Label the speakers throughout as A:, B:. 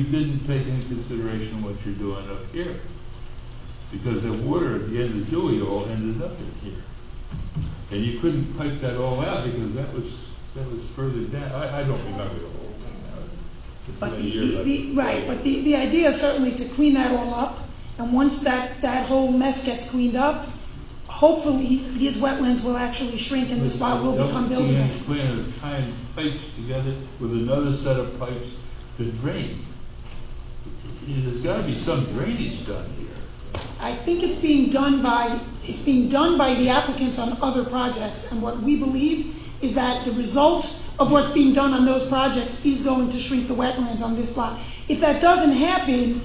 A: You didn't take into consideration what you're doing up here. Because the water at the end of Dewey all ended up in here. And you couldn't pipe that all out because that was, that was further down. I, I don't remember the whole thing now. It's
B: But
A: been a
B: the,
A: year,
B: the-
A: like-
B: the, right, but the, the idea is certainly to clean that all up, and once that, that whole mess gets cleaned up, hopefully, these wetlands will actually shrink and the spot will become
A: Don't
B: buildable.
A: see any plan of tying pipes together with another set of pipes to drain. There's gotta be some drainage done here.
B: I think it's being done by, it's being done by the applicants on other projects, and what we believe is that the result of what's being done on those projects is going to shrink the wetlands on this lot. If that doesn't happen,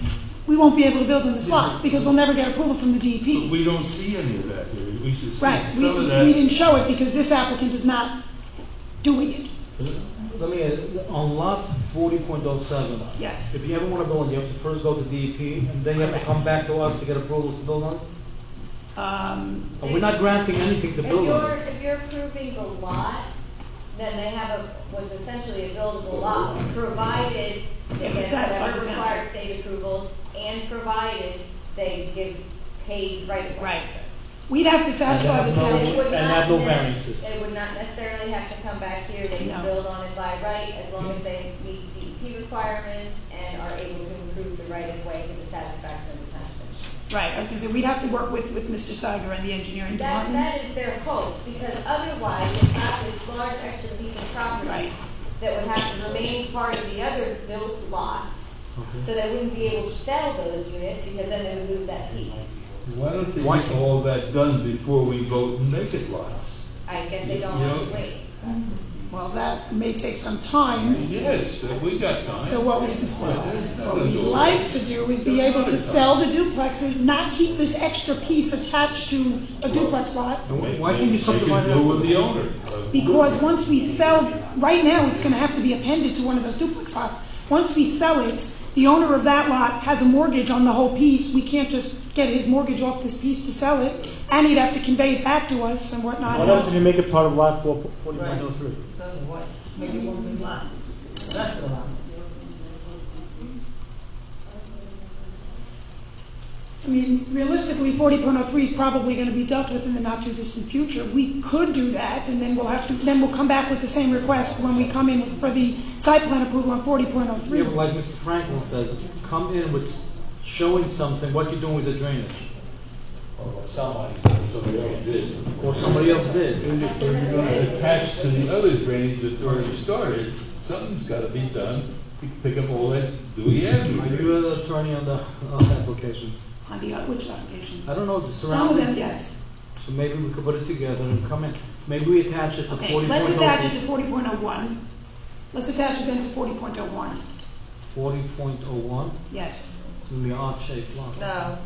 B: we won't be able to build in this lot, because we'll never get approval from the E DEP.
A: But we don't see any of that here. We should see some
B: Right,
A: of
B: we,
A: that.
B: we didn't show it because this applicant is not doing it,
C: Let me, add, on lot forty point oh seven.
B: yes.
C: If you ever want to build, you have to first go to DEP, and then you have to come
B: Correct.
C: back to us to get approvals to build on.
B: Um,
C: And we're not granting anything to
D: If
C: build
D: you're,
C: on.
D: if you're approving the lot, then they have a, what's essentially a buildable lot, provided they
B: It
D: get
B: was satisfied
D: whatever
B: with town.
D: required state approvals, and provided they give paid right of
B: Right.
D: access.
B: we'd have to satisfy the
C: And that's
D: It
B: town,
C: not-
D: would
C: And have no
D: not nec-
C: variances.
D: They would not necessarily have to come back here, they
B: No.
D: can build on it by right, as long as they meet DEP requirements and are able to improve the right of way to the satisfaction of the town commission.
B: right, I was gonna say, we'd have to work with, with Mr. Steiger and the engineering
D: That,
B: department.
D: that is their hope, because otherwise, it's not this large extra piece of property
B: Right.
D: that would have to remain part of the other built lots, so they wouldn't be able to sell those units, because then they would lose that piece.
A: Why don't they
C: Why
A: get
C: can't-
A: all that done before we vote and make it lots?
D: I guess they don't
A: You
D: want
A: know-
D: to wait.
B: Well, that may take some time,
A: Yes, uh, we got time.
B: so what we,
A: Well, that's not
B: what we'd
A: gonna-
B: like to do is be able to sell the duplexes, not keep this extra piece attached to a duplex lot,
C: And wh-
A: They-
C: Why can't you
A: they
C: subdivide
A: can
C: it?
A: deal with the owner. of-
B: because
A: Oh,
B: once we sell, right now, it's gonna have to be appended to one of those duplex lots. Once we sell it, the owner of that lot has a mortgage on the whole piece, we can't just get his mortgage off this piece to sell it, and he'd have to convey it back to us and
E: Why don't
B: whatnot.
E: you make it part of lot four, forty point oh three?
F: So what, make it one big lot, that's the lot.
B: I mean, realistically, forty point oh three is probably gonna be dealt with in the not-too-distant future. We could do that, and then we'll have to, then we'll come back with the same request when we come in for the site plan approval on forty point oh
C: Yeah,
B: three.
C: but like Mr. Franklin said, come in with s- showing something, what you're doing with the drainage,
A: Somebody, somebody else did.
C: or somebody else did.
A: And if we're gonna attach to the other drainage that's already started, something's gotta be done to pick up all that Dewey Avenue.
C: Are
A: drainage.
C: you an attorney on the, uh applications?
B: On the, which application?
C: I don't know, the
B: Some of
C: surrounding.
B: them, yes.
C: So maybe we could put it together and come in, maybe we attach it to forty
B: Okay,
C: point oh.
B: let's attach it to forty point oh one. Let's attach it then to forty point oh one,
C: Forty point oh one,
B: yes.
C: it's gonna be an odd shaped lot.
D: No. That-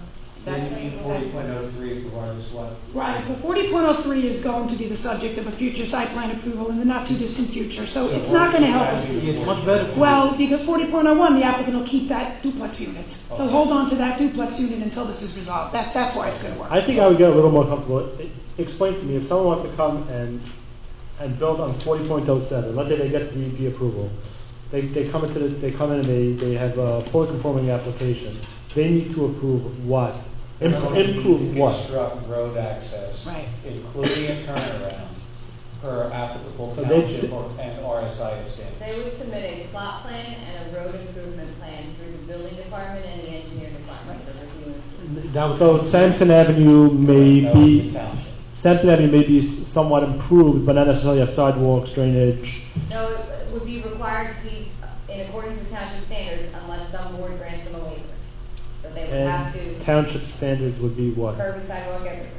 G: Forty point oh three is the largest lot.
B: Right, but forty point oh three is going to be the subject of a future site plan approval in the not-too-distant future, so it's not gonna help us.
C: Yeah, It's much better for you.
B: Well, because forty point oh one, the applicant will keep that duplex unit. They'll hold on to that duplex unit until this is resolved, that, that's why it's gonna work.
E: I think I would get a little more comfortable, E- explain to me, if someone wants to come and, and build on forty point oh seven, let's say they get the DEP approval. They, they come into the, they come in and they, they have a fully conforming application, they need to approve what? Im- Improve what?
G: Construct road access.
B: Right.
G: Including a turnaround per applicable
E: So they-
G: township or- and RSI standards.
D: They would submit a plot plan and a road improvement plan through the building department and the engineering department for review. and approval.
C: That would-
E: So Sampson Avenue may
G: That would be
E: be,
G: Township.
E: Sampson Avenue may be s- somewhat improved, but not necessarily have sidewalks, drainage.
D: No, it would be required to be in accordance with township standards unless some board grants them a waiver. So they would have
E: And
D: to
E: township standards would be what?
D: curb and sidewalk everywhere.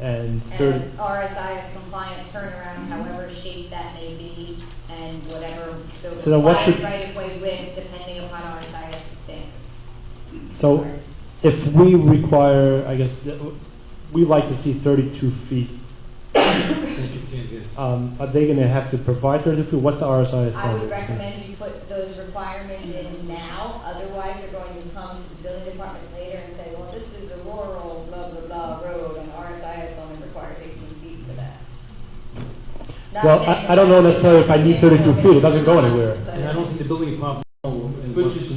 E: And third.
D: And RSI is compliant turnaround, however shaped that may be, and whatever the
E: So then what
D: required
E: should-
D: right of way width, depending upon RSI's standards.
E: So if we require, I guess, th- we like to see 32 feet,
C: that you can't get.
E: um, are they going to have to provide 32 feet? What's the RSI standard?
D: I would recommend you put those requirements in now, otherwise they're going to come to the building department later and say, well, this is a rural blah, blah, blah road, and RSIS only requires eighteen feet for that. Not
E: Well, I-
D: then,
E: I don't know
D: but-
E: necessarily if I need 32 feet, it doesn't go anywhere.
D: So-
C: And I don't think the building department. will-
A: But you